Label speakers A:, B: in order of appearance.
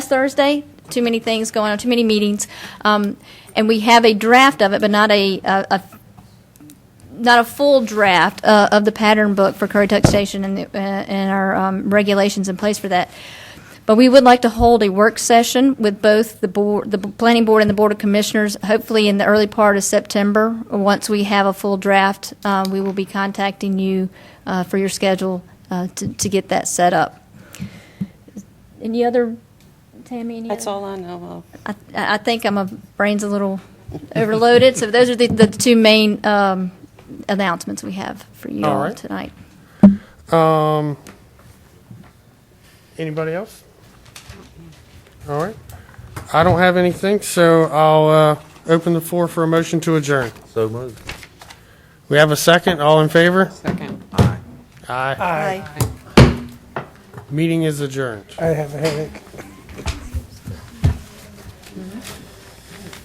A: Thursday. Too many things going on, too many meetings. Um, and we have a draft of it, but not a, a, a not a full draft uh, of the pattern book for Curry Tuck Station and, the, uh, and our um, regulations in place for that. But we would like to hold a work session with both the board, the planning board and the board of commissioners, hopefully in the early part of September. Once we have a full draft, uh, we will be contacting you uh, for your schedule uh, to, to get that set up. Any other, Tammy? Any
B: That's
A: other?
B: all I know of.
A: I, I think I'm a brain's a little overloaded. So those are the, the two main um, announcements we have for you
C: All
A: all
C: right.
A: tonight.
C: Um, anybody else? All right. I don't have anything, so I'll uh, open the floor for a motion to adjourn.
D: So moved.
C: We have a second. All in favor?
B: Second.
C: Aye. Aye. Meeting is adjourned.
E: I have a headache.